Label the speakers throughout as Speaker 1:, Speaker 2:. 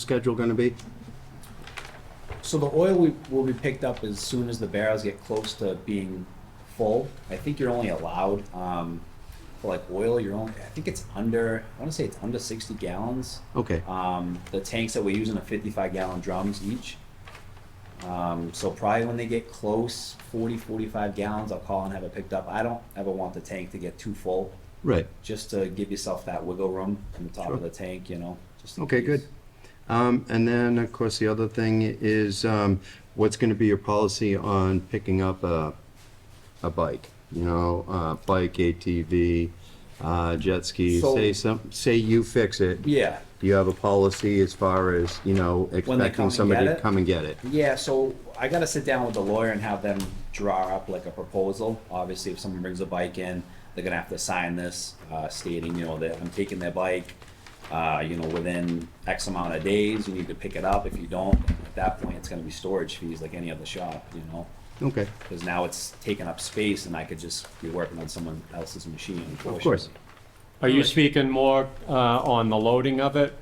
Speaker 1: schedule gonna be?
Speaker 2: So the oil we, will be picked up as soon as the barrels get close to being full. I think you're only allowed, um, for like oil, you're only, I think it's under, I wanna say it's under sixty gallons.
Speaker 1: Okay,
Speaker 2: Um, the tanks that we're using are fifty-five gallon drums each. Um, so probably when they get close, 40, 45 gallons, I'll call and have it picked up. I don't ever want the tank to get too full,
Speaker 1: right.
Speaker 2: just to give yourself that wiggle room on the top
Speaker 1: Sure.
Speaker 2: of the tank, you know, just. in
Speaker 1: Okay, good.
Speaker 2: case.
Speaker 1: Um, and then, of course, the other thing is, um, what's gonna be your policy on picking up a, a bike? You know, uh, bike, ATV, uh, jet ski,
Speaker 2: So-
Speaker 1: say some, say you fix it.
Speaker 2: Yeah,
Speaker 1: Do you have a policy as far as, you know,
Speaker 2: come
Speaker 1: expecting
Speaker 2: and
Speaker 1: somebody
Speaker 2: get
Speaker 1: to
Speaker 2: it?
Speaker 1: come and get it?
Speaker 2: Yeah, so I gotta sit down with the lawyer and have them draw up like a proposal. Obviously, if someone brings a bike in, they're gonna have to sign this, uh, stating, you know, that I'm taking their bike, uh, you know, within X amount of days, you need to pick it up. If you don't, at that point, it's gonna be storage fees like any other shop, you know?
Speaker 1: Okay,
Speaker 2: Cause now it's taking up space and I could just be working on someone else's machine, unfortunately.
Speaker 1: course.
Speaker 3: Are you speaking more uh, on the loading of it,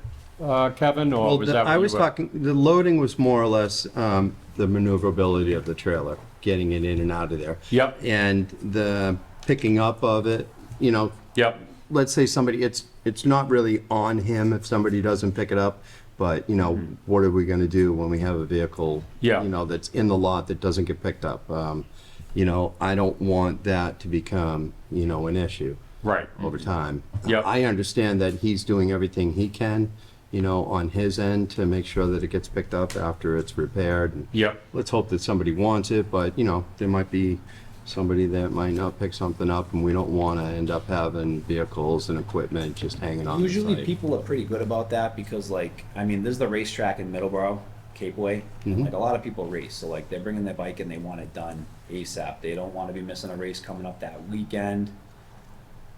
Speaker 3: uh, Kevin, or
Speaker 1: Well,
Speaker 3: was
Speaker 1: the-
Speaker 3: that? what
Speaker 1: I
Speaker 3: you
Speaker 1: was
Speaker 3: were-
Speaker 1: talking, the loading was more or less um, the maneuverability of the trailer, getting it in and out of there.
Speaker 3: Yep.
Speaker 1: And the picking up of it, you know,
Speaker 3: Yep,
Speaker 1: let's say somebody, it's, it's not really on him if somebody doesn't pick it up, but, you know, what are we going to do when we have a vehicle?
Speaker 3: Mm-hmm. Yeah.
Speaker 1: You know, that's in the lot that doesn't get picked up? Um, You know, I don't want that to become, you know, an issue
Speaker 3: right,
Speaker 1: over time.
Speaker 3: Yep.
Speaker 1: I understand that he's doing everything he can, you know, on his end to make sure that it gets picked up after it's repaired. And
Speaker 3: yep,
Speaker 1: Let's hope that somebody wants it, but, you know, there might be somebody that might not pick something up, and we don't want to end up having vehicles and equipment just hanging on the
Speaker 2: Usually
Speaker 1: site.
Speaker 2: people are pretty good about that because like, I mean, there's the racetrack in Middleborough, Capeway. and Like a lot of people race, so like they're bringing their bike and they want it done ASAP. They don't want to be missing a race coming up that weekend.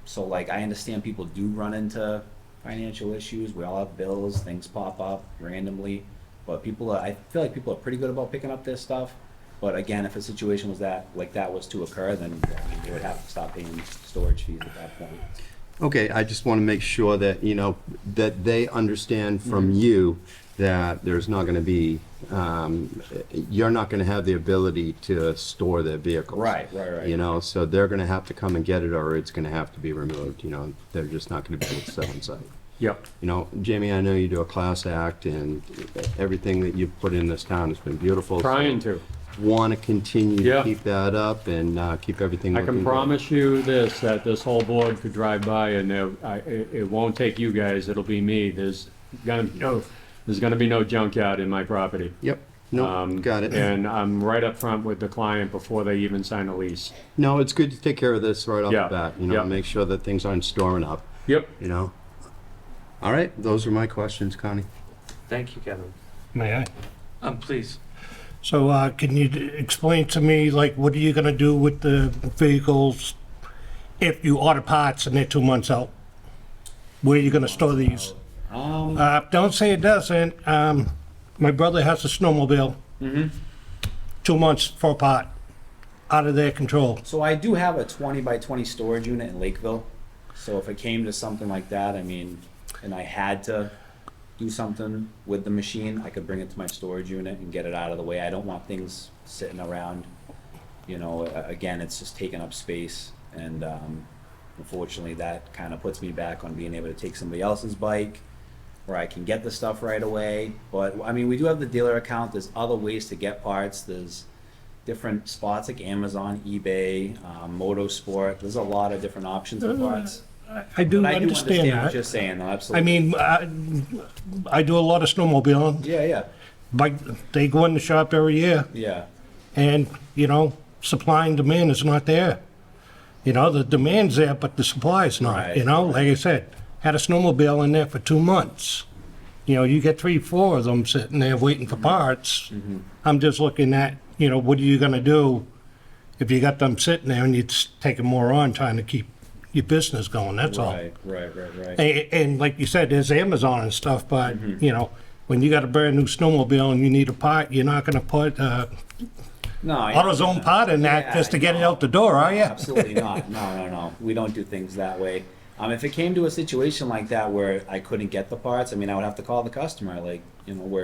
Speaker 2: So like I understand people do run into financial issues. We all have bills, things pop up randomly. But people are, I feel like people are pretty good about picking up their stuff. But again, if a situation was that, like that was to occur, then I mean, they would have to stop paying storage fees at that point.
Speaker 1: Okay, I just want to make sure that, you know, that they understand
Speaker 3: Mm-hmm.
Speaker 1: from you that there's not going to be, um, you're not going to have the ability to store their vehicles.
Speaker 2: Right, right, right.
Speaker 1: You know, so they're going to have to come and get it or it's going to have to be removed, you know, they're just not going to be able to sell on site.
Speaker 3: yep,
Speaker 1: You know, Jamie, I know you do a class act and everything that you've put in this town has been beautiful.
Speaker 3: trying to.
Speaker 1: Want to continue to
Speaker 3: Yeah.
Speaker 1: keep that up and uh, keep everything
Speaker 3: I
Speaker 1: looking
Speaker 3: can
Speaker 1: good.
Speaker 3: promise you this, that this whole board could drive by and there- I- it, it won't take you guys, it'll be me. There's gonna, be no, there's gonna be no junkyard in my property.
Speaker 1: Yep, no,
Speaker 3: Um,
Speaker 1: got it.
Speaker 3: And I'm right up front with the client before they even sign a lease.
Speaker 1: No, it's good to take care of this right off
Speaker 3: Yeah,
Speaker 1: the bat, you know,
Speaker 3: yeah.
Speaker 1: make sure that things aren't storming up,
Speaker 3: Yep.
Speaker 1: you know? All right, those are my questions, Connie.
Speaker 4: Thank you, Kevin.
Speaker 5: May I?
Speaker 4: Um, please.
Speaker 5: So uh, can you d- explain to me, like, what are you going to do with the vehicles if you order parts and they're two months out? Where are you going to store these?
Speaker 2: Um,
Speaker 5: Uh, Don't say it doesn't. Um, My brother has a snowmobile. Two months for a part, out of their control.
Speaker 2: So I do have a twenty by twenty storage unit in Lakeville. So if it came to something like that, I mean, and I had to do something with the machine, I could bring it to my storage unit and get it out of the way. I don't want things sitting around. You know, a- again, it's just taking up space and, um, unfortunately, that kind of puts me back on being able to take somebody else's bike where I can get the stuff right away. But, I mean, we do have the dealer account. There's other ways to get parts. There's, different spots like Amazon, eBay, um, Motorsport. There's a lot of different options for parts.
Speaker 5: I- I do
Speaker 2: But I do
Speaker 5: Uh, understand
Speaker 2: understand what you're
Speaker 5: that.
Speaker 2: saying, though,
Speaker 5: I
Speaker 2: absolutely.
Speaker 5: mean, I I do a lot of snowmobiling.
Speaker 2: Yeah, yeah,
Speaker 5: Like, they go in the shop every year.
Speaker 2: yeah.
Speaker 5: and you know supply and demand is not there you know the demand's there but the supply's not
Speaker 2: Right,
Speaker 5: you know like i said had a snowmobile in there for two months you know you get three four of them sitting there waiting for parts
Speaker 2: Mm-hmm.
Speaker 5: i'm just looking at you know what are you going to do if you got them sitting there and you're just taking more on trying to keep your business going that's all
Speaker 2: Right, right, right, right.
Speaker 5: and, and like you said, there's Amazon and stuff, but
Speaker 2: Mm-hmm.
Speaker 5: you know, when you got a brand new snowmobile and you need a part, you're not going to put uh,
Speaker 2: No, I-
Speaker 5: AutoZone pot in that
Speaker 2: Yeah, Oh,
Speaker 5: just to get it
Speaker 2: no.
Speaker 5: out the door, are you?
Speaker 2: Absolutely not. No, no, no. We don't do things that way. Um, if it came to a situation like that where I couldn't get the parts, I mean, I would have to call the customer, like, you know, where